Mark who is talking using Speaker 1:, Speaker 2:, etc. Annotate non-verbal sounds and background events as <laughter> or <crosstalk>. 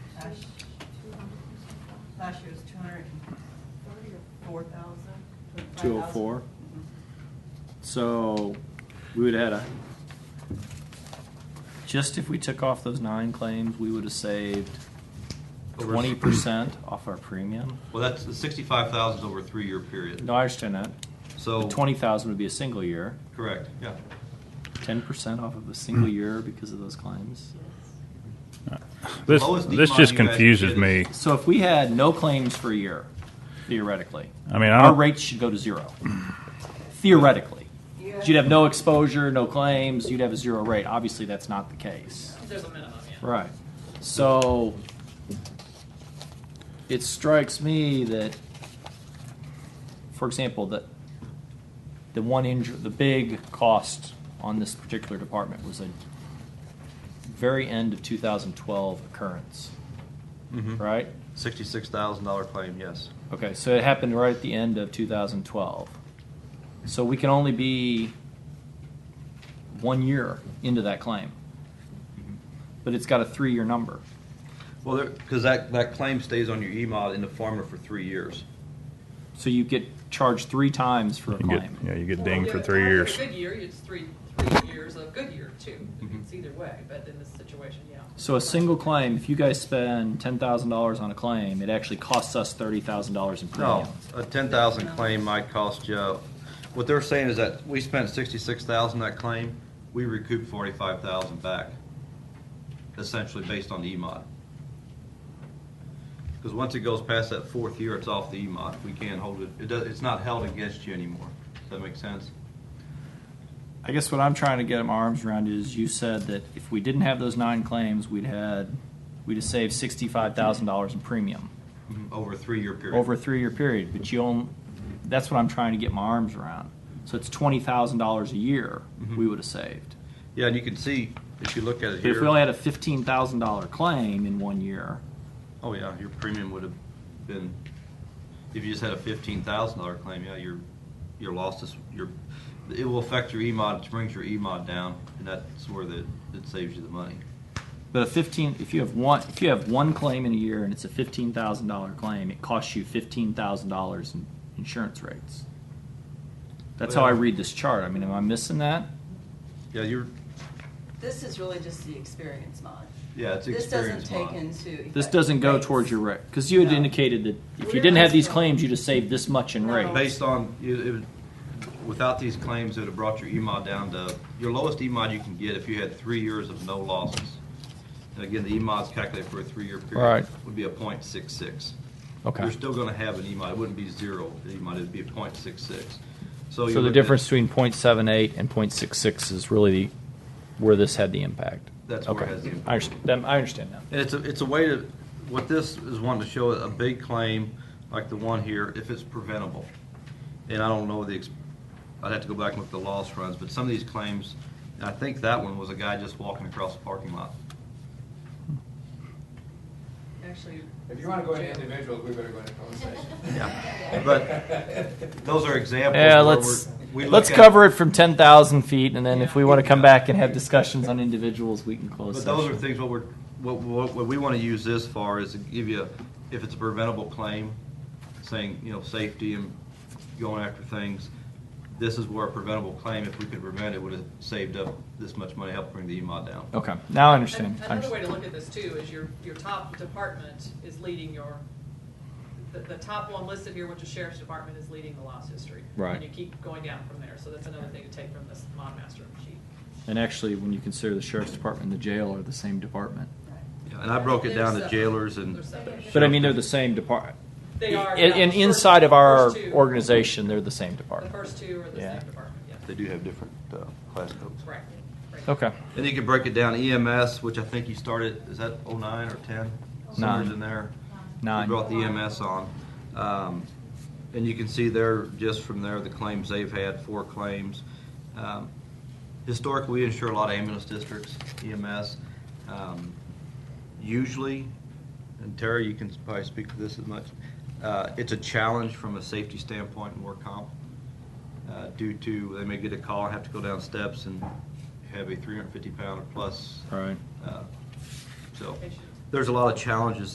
Speaker 1: Last, last year was two hundred and four thousand.
Speaker 2: 204? So we would have had a, just if we took off those nine claims, we would have saved
Speaker 3: Over- <clears throat>
Speaker 2: twenty percent off our premium.
Speaker 3: Well, that's, the sixty-five thousand over a three-year period.
Speaker 2: No, I understand that.
Speaker 3: So-
Speaker 2: The twenty thousand would be a single year,
Speaker 3: Correct, yeah.
Speaker 2: ten percent off of a single
Speaker 3: Hmm.
Speaker 2: year because of those claims.
Speaker 4: This,
Speaker 3: Lowest
Speaker 4: this
Speaker 3: decline
Speaker 4: just
Speaker 3: you guys
Speaker 4: confuses
Speaker 3: did
Speaker 4: me.
Speaker 3: is-
Speaker 2: So if we had no claims for a year, theoretically,
Speaker 4: I mean, I
Speaker 2: our
Speaker 4: don't,
Speaker 2: rates should go to zero. Theoretically. You'd have no exposure, no claims, you'd have a zero rate. Obviously, that's not the case.
Speaker 5: There's a minimum, yeah.
Speaker 2: Right. So it strikes me that, for example, that the one injury, the big cost on this particular department was a very end of 2012 occurrence,
Speaker 4: Mm-hmm.
Speaker 2: right?
Speaker 3: mm-hmm. Sixty-six thousand dollar claim, yes.
Speaker 2: Okay, so it happened right at the end of 2012. So we can only be one year into that claim, Mm-hmm. but it's got a three-year number.
Speaker 3: Well, there, because that, that claim stays on your E E-mod in the farmer for three years.
Speaker 2: So you get charged three times for a
Speaker 4: you get,
Speaker 2: claim.
Speaker 4: yeah, you get
Speaker 5: Well,
Speaker 4: dinged
Speaker 5: yeah,
Speaker 4: for
Speaker 5: if
Speaker 4: three
Speaker 5: after a
Speaker 4: years.
Speaker 5: Good year, it's three, three years of good year too.
Speaker 4: Mm-hmm.
Speaker 5: It's either way, but in this situation, yeah.
Speaker 2: So a single claim, if you guys spend ten thousand dollars on a claim, it actually costs us thirty thousand dollars in premium.
Speaker 3: No, a ten thousand claim might cost you, what they're saying is that we spent sixty-six thousand that claim, we recoup forty-five thousand back, essentially based on the E E-mod. Because once it goes past that fourth year, it's off the E E-mod. We can't hold it, it does, it's not held against you anymore. Does that make sense?
Speaker 2: I guess what I'm trying to get my arms around is you said that if we didn't have those nine claims, we'd had we'd have saved sixty-five thousand dollars in premium
Speaker 3: Over a three-year period.
Speaker 2: over a three-year period. But you own that's what I'm trying to get my arms around. So it's twenty thousand dollars a year we would have saved.
Speaker 3: Yeah, and you can see, if you look at it
Speaker 2: But
Speaker 3: here.
Speaker 2: if we only had a fifteen thousand dollar claim in one year,
Speaker 3: Oh, yeah, your premium would have been, if you just had a fifteen thousand dollar claim, yeah, your, your loss is, your, it will affect your E E-mod, it brings your E-mod down, and that's where the, it saves you the money.
Speaker 2: But a fifteen, if you have one, if you have one claim in a year and it's a fifteen thousand dollar claim, it costs you fifteen thousand dollars in insurance rates. That's how I
Speaker 3: Well-
Speaker 2: read this chart. I mean, am I missing that?
Speaker 3: Yeah, you're,
Speaker 6: This is really just the experience mod.
Speaker 3: yeah, it's
Speaker 6: This doesn't
Speaker 3: experience
Speaker 6: take
Speaker 3: mod.
Speaker 6: into.
Speaker 2: This
Speaker 6: effect
Speaker 2: doesn't go
Speaker 6: rates.
Speaker 2: towards your rate, because you had
Speaker 6: No.
Speaker 2: indicated that if you
Speaker 6: We're
Speaker 2: didn't have these
Speaker 6: not-
Speaker 2: claims, you'd have saved this much in
Speaker 6: No.
Speaker 2: rate.
Speaker 3: Based on, it, it, without these claims, it would have brought your E E-mod down to, your lowest E E-mod you can get if you had three years of no losses. And again, the E E-mod's calculated for a three-year period.
Speaker 2: Right.
Speaker 3: Would be a point six six.
Speaker 2: Okay.
Speaker 3: You're still gonna have an E E-mod, it wouldn't be zero E E-mod, it'd be a point six six. So you
Speaker 2: So
Speaker 3: look
Speaker 2: the
Speaker 3: at-
Speaker 2: difference between .78 and .66 is really where this had the impact.
Speaker 3: That's where
Speaker 2: okay.
Speaker 3: it Okay. has the impact.
Speaker 2: I understand. I understand now.
Speaker 3: And it's a, it's a way to, what this is wanting to show, a big claim, like the one here, if it's preventable. And I don't know the, ex- I'd have to go back and look at the loss runs, but some of these claims, and I think that one was a guy just walking across the parking lot.
Speaker 6: Actually.
Speaker 7: If you want to go into individuals, we better go into closed session.
Speaker 3: Yeah, but those are examples
Speaker 2: Yeah,
Speaker 3: where
Speaker 2: let's
Speaker 3: we're. we
Speaker 2: let's
Speaker 3: look at-
Speaker 2: cover it from ten thousand feet, and then if we want to come
Speaker 3: Yeah.
Speaker 2: back and have discussions on individuals, we can close.
Speaker 3: But those
Speaker 2: session.
Speaker 3: are things what we're, what, what, what we want to use this for is to give you, if it's a preventable claim, saying, you know, safety and going after things, this is where a preventable claim, if we could prevent it, would have saved up this much money, helped bring the E EMOD down.
Speaker 2: Okay, now I
Speaker 5: An-
Speaker 2: understand. I
Speaker 5: Another way
Speaker 2: understand.
Speaker 5: to look at this too is your, your top department is leading your, the, the top one listed here, which is sheriff's department, is leading the loss history.
Speaker 2: Right.
Speaker 5: And you keep going down from there, so that's another thing to take from this mod master sheet.
Speaker 2: And actually, when you consider the sheriff's department and the jail are the same department.
Speaker 3: Yeah, And I broke it down to jailers and,
Speaker 5: They're separate.
Speaker 2: But I mean, they're the same department.
Speaker 5: They are.
Speaker 2: In,
Speaker 5: yeah,
Speaker 2: in-
Speaker 5: the first-
Speaker 2: inside of our
Speaker 5: first two-
Speaker 2: organization, they're the same
Speaker 5: The
Speaker 2: department.
Speaker 5: first two are the
Speaker 2: Yeah.
Speaker 5: same department, yeah.
Speaker 3: they do have different uh, class codes.
Speaker 5: Right, right.
Speaker 2: Okay.
Speaker 3: And you can break it down EMS, which I think you started, is that oh-nine or ten? Somewhere's
Speaker 2: Nine.
Speaker 3: in there.
Speaker 2: Nine.
Speaker 3: We brought the EMS on. Um, And you can see there, just from there, the claims they've had, four claims. Um, Historically, we insure a lot of ambulance districts, EMS. Um, Usually, and Terry, you can probably speak to this as much, uh, it's a challenge from a safety standpoint and work comp uh, due to, they may get a call and have to go down steps and have a 350 pound or plus.
Speaker 2: Right.
Speaker 3: Uh, So,
Speaker 5: Patient.
Speaker 3: there's a lot of challenges